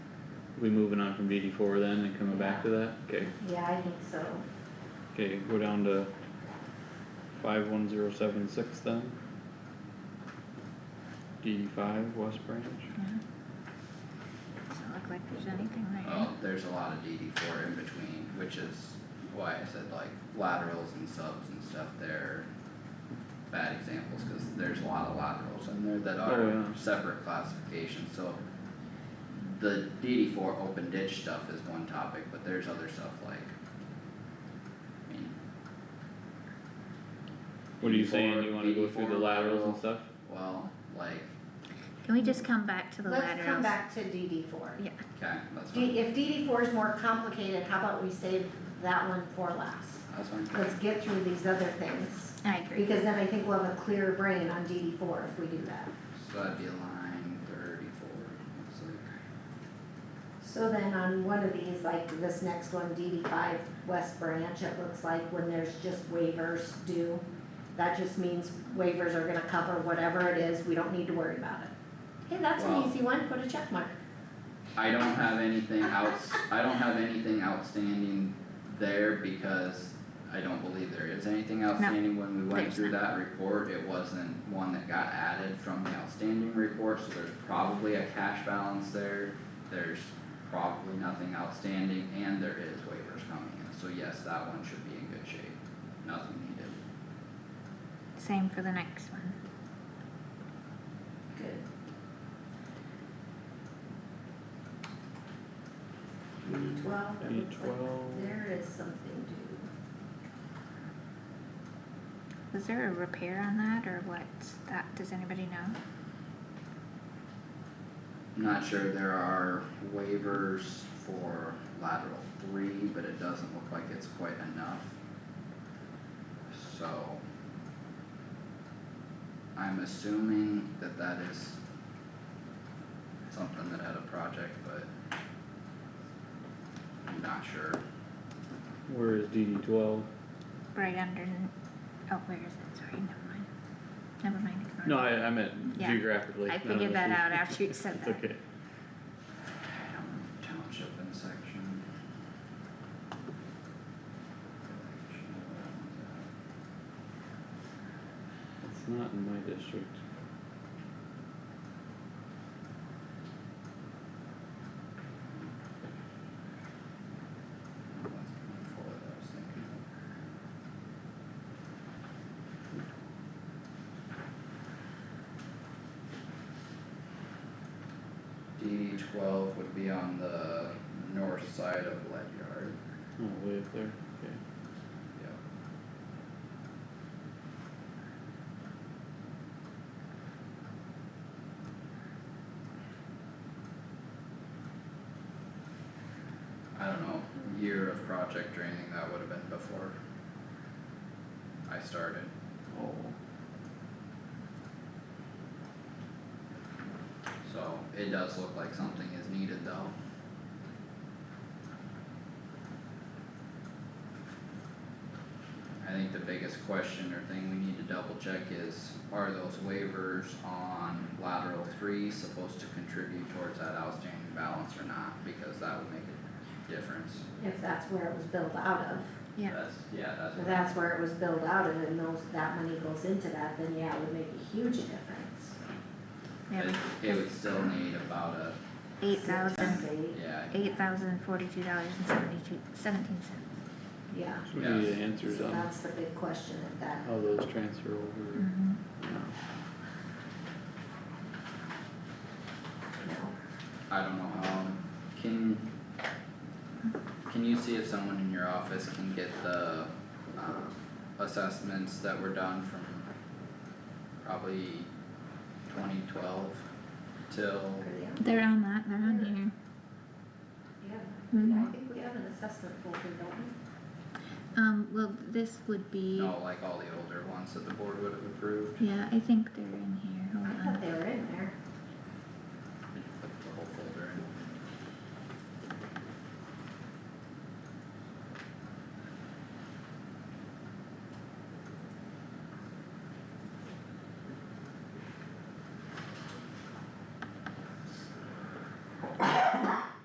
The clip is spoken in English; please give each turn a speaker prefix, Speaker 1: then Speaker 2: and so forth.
Speaker 1: we moving on from DD four then and coming back to that? Okay,
Speaker 2: Yeah, I think so.
Speaker 1: okay, go down to five one zero seven six then. DD five, West Branch,
Speaker 3: Doesn't look like there's anything there.
Speaker 4: Oh, there's a lot of DD four in between, which is why I said like laterals and subs and stuff there. are Bad examples, cause there's a lot of laterals in there that
Speaker 1: Oh,
Speaker 4: are
Speaker 1: yeah.
Speaker 4: separate classifications, so. The DD four open ditch stuff is one topic, but there's other stuff like. I mean,
Speaker 1: what are you saying,
Speaker 4: DD4,
Speaker 1: you wanna go through the
Speaker 4: DD4
Speaker 1: laterals and
Speaker 2: uh,
Speaker 4: lateral.
Speaker 1: stuff?
Speaker 4: well, like,
Speaker 3: Can we just come back to the laterals?
Speaker 2: Let's come back to DD four.
Speaker 3: Yeah,
Speaker 4: okay, that's
Speaker 2: D,
Speaker 4: fine,
Speaker 2: if DD four is more complicated, how about we save that one for last?
Speaker 4: that's fine.
Speaker 2: Let's get through these other things,
Speaker 3: I agree.
Speaker 2: because then I think we'll have a clearer brain on DD four if we do that.
Speaker 4: So that'd be line thirty-four, looks like,
Speaker 2: So then on one of these, like this next one, DD five West Branch, it looks like when there's just waivers due, that just means waivers are gonna cover whatever it is, we don't need to worry about it. Hey, that's an
Speaker 4: Wow.
Speaker 2: easy one, put a check mark.
Speaker 4: I don't have anything outs, I don't have anything outstanding there because I don't believe there is anything outstanding when we went
Speaker 3: there's
Speaker 4: through that report, it wasn't one that got added from the outstanding report, so there's probably a cash balance there. There's probably nothing outstanding and there is waivers coming in, so yes, that one should be in good shape, nothing needed.
Speaker 3: Same for the next one.
Speaker 2: Good. DD twelve, it
Speaker 1: DD
Speaker 2: looks like
Speaker 1: 12.
Speaker 2: there is something due.
Speaker 3: Was there a repair on that or what's that? Does anybody know?
Speaker 4: I'm Not sure there are waivers for lateral three, but it doesn't look like it's quite enough. So. I'm assuming that that is. Something that had a project, but. I'm not sure,
Speaker 1: Where is DD twelve?
Speaker 3: Right under, oh, where is it? Sorry, never mind. Never mind. ignore
Speaker 1: No,
Speaker 3: it.
Speaker 1: I, I meant
Speaker 3: Yeah.
Speaker 1: geographically.
Speaker 3: I
Speaker 1: none of
Speaker 3: figured
Speaker 1: us
Speaker 3: that
Speaker 1: do.
Speaker 3: out after you said
Speaker 1: It's
Speaker 3: that.
Speaker 1: okay,
Speaker 4: township and section.
Speaker 1: it's not in my district.
Speaker 4: That's before what I was thinking of. DD twelve would be on the north side of Lead Yard.
Speaker 1: Oh, way up there, okay.
Speaker 4: Yep. I don't know, year of project draining, that would have been before I started.
Speaker 1: Oh.
Speaker 4: So it does look like something is needed though. I think the biggest question or thing we need to double check is, are those waivers on lateral three supposed to contribute towards that outstanding balance or not? Because that would make a difference.
Speaker 2: if that's where it was built out of,
Speaker 3: Yeah.
Speaker 4: That's, yeah, that's
Speaker 2: if
Speaker 4: what.
Speaker 2: that's where it was built out of and those, that money goes into that, then yeah, it would make a huge difference.
Speaker 3: Yeah,
Speaker 4: It, it would still need about a,
Speaker 3: eight thousand,
Speaker 2: Compensate,
Speaker 4: yeah,
Speaker 3: eight thousand forty-two dollars and seventy-two, seventeen cents.
Speaker 2: Yeah,
Speaker 1: So we need
Speaker 4: Yes.
Speaker 1: the answers
Speaker 2: so
Speaker 1: on
Speaker 2: that's the big question if that,
Speaker 1: how those transfer over.
Speaker 3: Mm-hmm.
Speaker 2: you know,
Speaker 4: I don't know how, can, can you see if someone in your office can get the, um, assessments that were done from probably twenty twelve till,
Speaker 2: or the.
Speaker 3: They're on that, they're on
Speaker 2: Yeah, I think we have an assessment folder, don't we?
Speaker 3: here. Um, well, this would be,
Speaker 4: no, like all the older ones that the board would have approved?
Speaker 3: yeah, I think they're in here, hold
Speaker 2: I thought
Speaker 3: on.
Speaker 2: they were in